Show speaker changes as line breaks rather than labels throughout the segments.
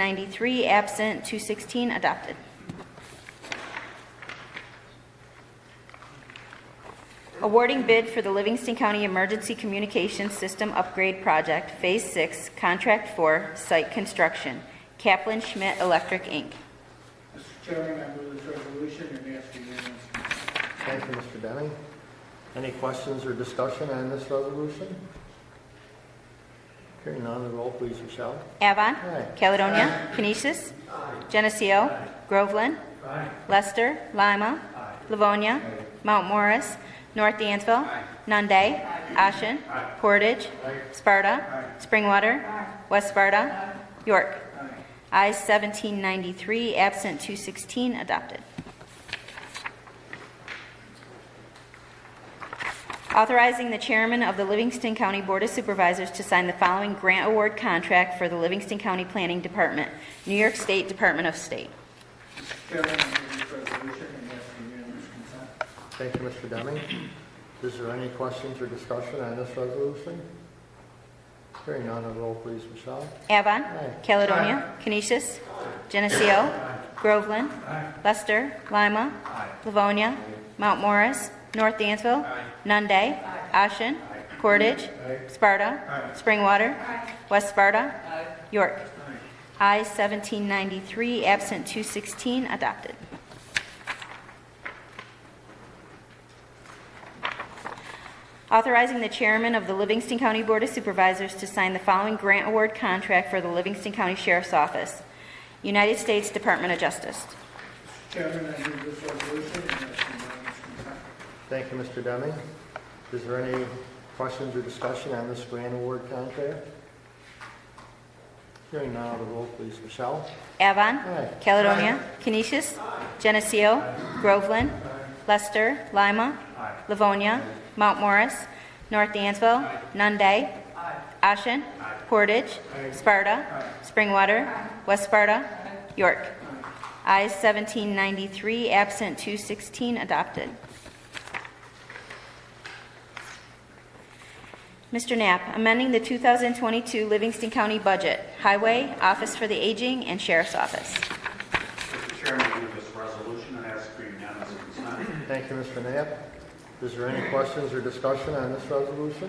1993, absent 216, adopted. Awarding bid for the Livingston County Emergency Communications System Upgrade Project, Phase 6, Contract 4, Site Construction, Kaplan Schmidt Electric, Inc.
Mr. Chairman, I move this resolution and ask for unanimous consent.
Thank you, Mr. Denning. Any questions or discussion on this resolution? Hearing none, the roll, please, Michelle.
Avon.
Aye.
Caledonia. Canisius. Geneseo. Groveland. Lester. Lima. Livonia. Mount Morris. North Dansville. Nunde. Ashen. Portage. Sparta. Springwater. West Sparta. York. I seventeen ninety-three, absent two sixteen, adopted. Authorizing the chairman of the Livingston County Board of Supervisors to sign the following grant award contract for the Livingston County Planning Department, New York State Department of State.
Mr. Chairman, I move this resolution and ask for unanimous consent.
Thank you, Mr. Denning. Is there any questions or discussion on this resolution? Hearing none, the roll, please, Michelle.
Avon.
Aye.
Caledonia. Canisius. Geneseo. Groveland. Lester. Lima. Livonia. Mount Morris. North Dansville. Nunde. Ashen. Portage. Sparta. Springwater. West Sparta. York. I seventeen ninety-three, absent two sixteen, adopted. Authorizing the chairman of the Livingston County Board of Supervisors to sign the following grant award contract for the Livingston County Sheriff's Office, United States Department of Justice.
Mr. Chairman, I move this resolution and ask for unanimous consent.
Thank you, Mr. Denning. Is there any questions or discussion on this grant award contract? Hearing none, the roll, please, Michelle.
Avon.
Aye.
Caledonia. Canisius. Geneseo. Groveland. Lester. Lima. Livonia. Mount Morris. North Dansville. Nunde. Ashen. Portage. Sparta. Springwater. West Sparta. York. I seventeen ninety-three, absent two sixteen, adopted. Mr. Knapp, amending the 2022 Livingston County budget, Highway, Office for the Aging, and Sheriff's Office.
Mr. Chairman, I move this resolution and ask for unanimous consent.
Thank you, Mr. Knapp. Is there any questions or discussion on this resolution?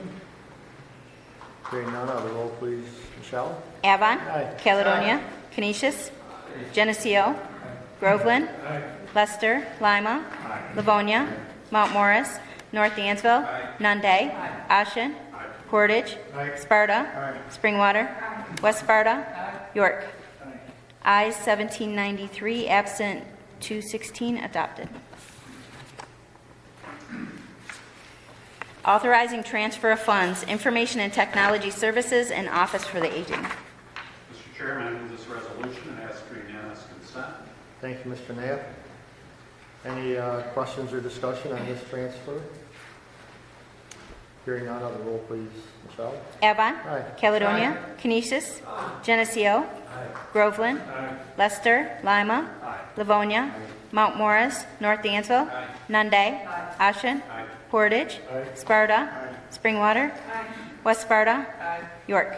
Hearing none, the roll, please, Michelle.
Avon.
Aye.
Caledonia. Canisius. Geneseo. Groveland. Lester. Lima. Livonia. Mount Morris. North Dansville. Nunde. Ashen. Portage. Sparta. Springwater. West Sparta. York. I seventeen ninety-three, absent two sixteen, adopted. Authorizing transfer of funds, Information and Technology Services and Office for the Aging.
Mr. Chairman, I move this resolution and ask for unanimous consent.
Thank you, Mr. Knapp. Any uh, questions or discussion on this transfer? Hearing none, the roll, please, Michelle.
Avon.
Aye.
Caledonia. Canisius. Geneseo. Groveland. Lester. Lima. Livonia. Mount Morris. North Dansville. Nunde. Ashen. Portage. Sparta. Springwater. West Sparta. York.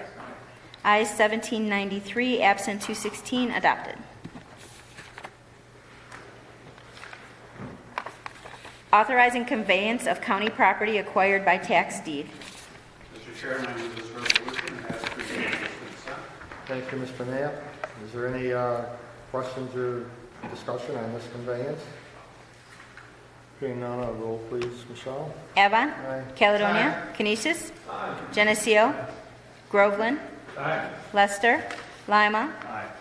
I seventeen ninety-three, absent two sixteen, adopted. Authorizing conveyance of county property acquired by tax deed.
Mr. Chairman, I move this resolution and ask for unanimous consent.
Thank you, Mr. Knapp. Is there any uh, questions or discussion on this conveyance? Hearing none, the roll, please, Michelle.
Avon.
Aye.
Caledonia. Canisius. Geneseo. Groveland. Lester. Lima.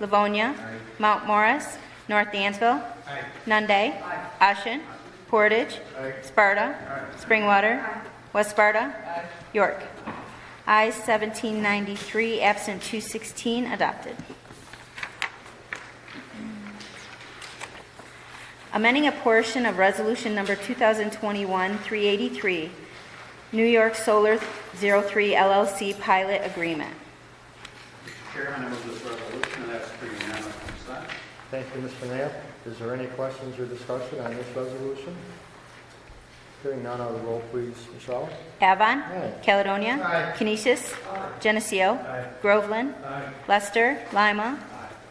Livonia. Mount Morris. North Dansville. Nunde. Ashen. Portage. Sparta. Springwater. West Sparta. York. I 1793, absent 216, adopted. amending a portion of Resolution Number 2021-383, New York Solar 03 LLC Pilot Agreement.
Mr. Chairman, I move this resolution and ask for unanimous consent.
Thank you, Mr. Knapp. Is there any questions or discussion on this resolution? Hearing none, the roll, please, Michelle.
Avon.
Aye.
Caledonia. Canisius. Geneseo. Groveland. Lester. Lima.